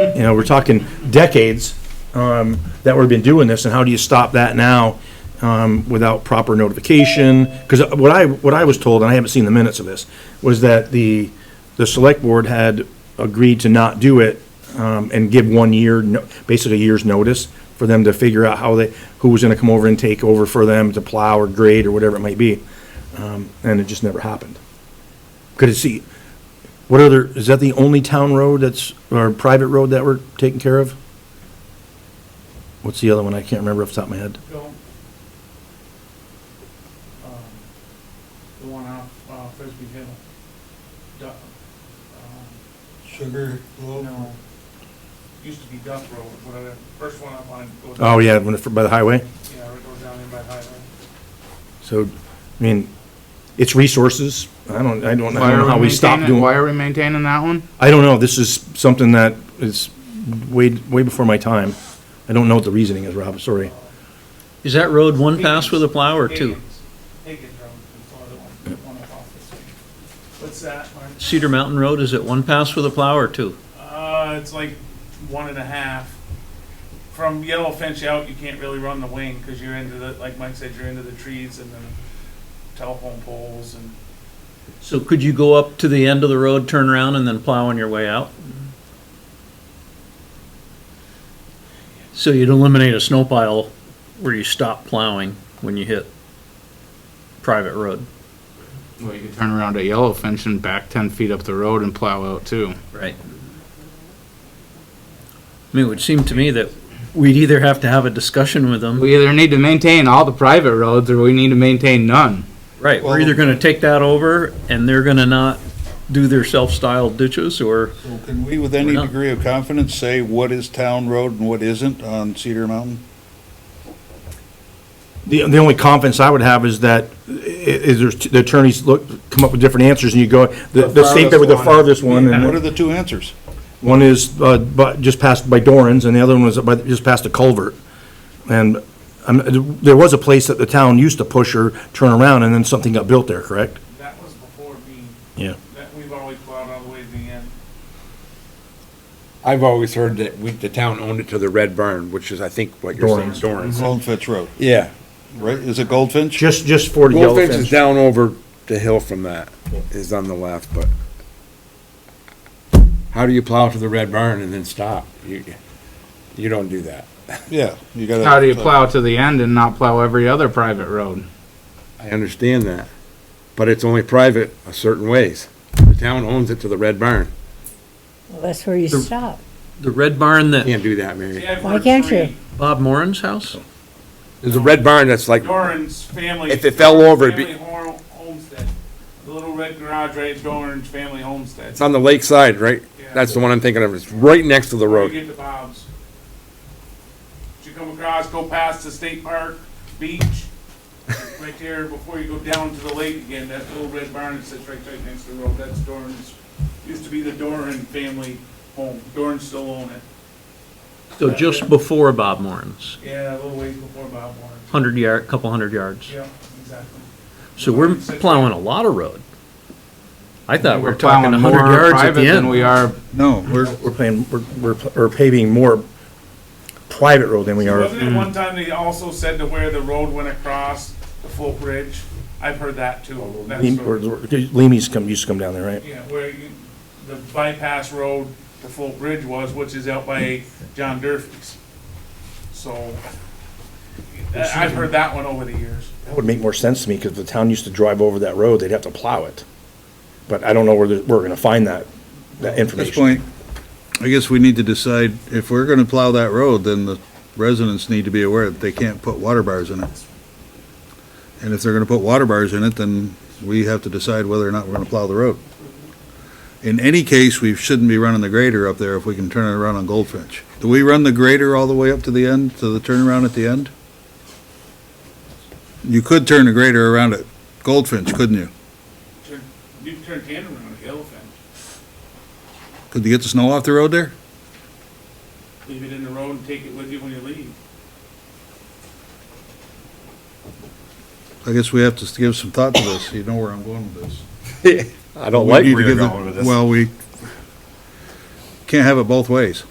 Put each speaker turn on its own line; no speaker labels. You know, we're talking decades um, that we've been doing this, and how do you stop that now um, without proper notification? Because what I, what I was told, and I haven't seen the minutes of this, was that the, the select board had agreed to not do it um, and give one year, no- basically a year's notice for them to figure out how they, who was going to come over and take over for them to plow or grade or whatever it might be. Um, And it just never happened. Could it see, what other, is that the only town road that's, or private road that we're taking care of? What's the other one? I can't remember off the top of my head.
Go. Um, The one off, uh, Frisbee Hill. Duck, um,
Sugar loaf?
no, used to be Duck Road, whatever, first one up on. goes-
Oh, yeah, when it- by the highway.
Yeah, it goes down in by highway.
So, I mean, it's resources. I don't, I don't know
Why are
how we stop
maintaining-
doing.
Why are we maintaining that one?
I don't know, this is something that is way, way before my time. I don't know what the reasoning is, Rob, sorry.
Is that road one pass with a plow or two?
Higgins- Higgins Road, the farther one, one up off the street. What's that, Mark?
Cedar Mountain Road, is it one pass with a plow or two?
Uh, it's like one and a half. From Yellowfinch out, you can't really run the wing because you're into the, like Mike said, you're into the trees and the telephone poles and
So could you go up to the end of the road, turn around, and then plow on your way out? So you'd eliminate a snow pile where you stop plowing when you hit private road.
Well, you could turn around at Yellowfinch and back ten feet up the road and plow out too.
Right. I mean, it would seem to me that we'd either have to have a discussion with them,
We either need to maintain all the private roads or we need to maintain none.
right, we're either gonna take that over, and they're gonna not do their self-styled ditches, or
So Can we, with any
We're not-
degree of confidence, say what is town road and what isn't on Cedar Mountain?
The, the only confidence I would have is that, i- is there's, the attorneys look, come up with different answers, and you go, the, the state that with the farthest one,
What are
and
the two answers?
one is, uh, but, just past by Doran's, and the other one was by, just past the culvert. And, um, there was a place that the town used to push or turn around, and then something got built there, correct?
that was before me.
Yeah.
That we've always plowed all the way to the end.
I've always heard that we, the town owned it to the Red Barn, which is, I think, what you're saying,
Dorans.
Dorans.
Goldfinch Road,
Yeah.
right? Is it Goldfinch?
Just, just for the
Goldfinch is
Yellowfinch.
down over the hill from that, is on the left, but how do you plow to the Red Barn and then stop? You, you don't do that.
Yeah. you gotta-
How do you plow to the end and not plow every other private road?
I understand that, but it's only private a certain ways. The town owns it to the Red Barn.
Well, that's where you stop.
the red barn that
Can't do that, Mary.
See, I've
Why
heard
can't
three.
you?
Bob Moran's house?
There's a Red Barn that's like,
Doran's family.
If it fell over, it'd be-
Family hor- homestead. The little red garage right at Doran's family homestead.
it's on the lakeside, right?
Yeah.
That's the one I'm thinking of. It's right next to the
Before you
road.
Get to Bob's. You come across, go past the state park, beach, right there before you go down to the lake again, that little red barn that sits right, right next to the road, that's Doran's. Used to be the Doran family home, Doran still own it.
So just before Bob Moran's,
Yeah, a little ways before Bob Warren.
hundred yard, couple hundred yards.
Yeah, exactly.
So we're plowing a lot of road. I thought we were
plowing
talking a hundred
more
yards at
private
the
Than
end.
we are
No, we're,
We're paying, we're, we're pl- we're paving more private road than we are.
Wasn't it one time they also said to where the road went across the folk ridge? I've heard that
Oh,
too. That's
Leam-
sort
or-
of-
or- Leamy's come, used to come down there, right?
Yeah, where you, the bypass road to Folk Bridge was, which is out by John Durfee's. So, I- I've heard that one over the years.
That would make more sense to me, because the town used to drive over that road, they'd have to plow it. But I don't know where, the- where we're gonna find that, that
at this
information.
point, I guess we need to decide, if we're gonna plow that road, then the residents need to be aware that they can't put water bars in it. And if they're gonna put water bars in it, then we have to decide whether or not we're gonna plow the road. In any case, we shouldn't be running the grader up there if we can turn it around on Goldfinch. Do we run the grader all the way up to the end, to the turnaround at the end? You could turn the grader around at Goldfinch, couldn't you?
Turn- You can turn tandem around at Yellowfin,
Could you get the snow off the road there?
leave it in the road and take it with you when you leave.
I guess we have to give some thought to this. You know where I'm going with this.
I don't like
We need
where
to
you're
give the-
going with this.
Well, we can't have it both ways.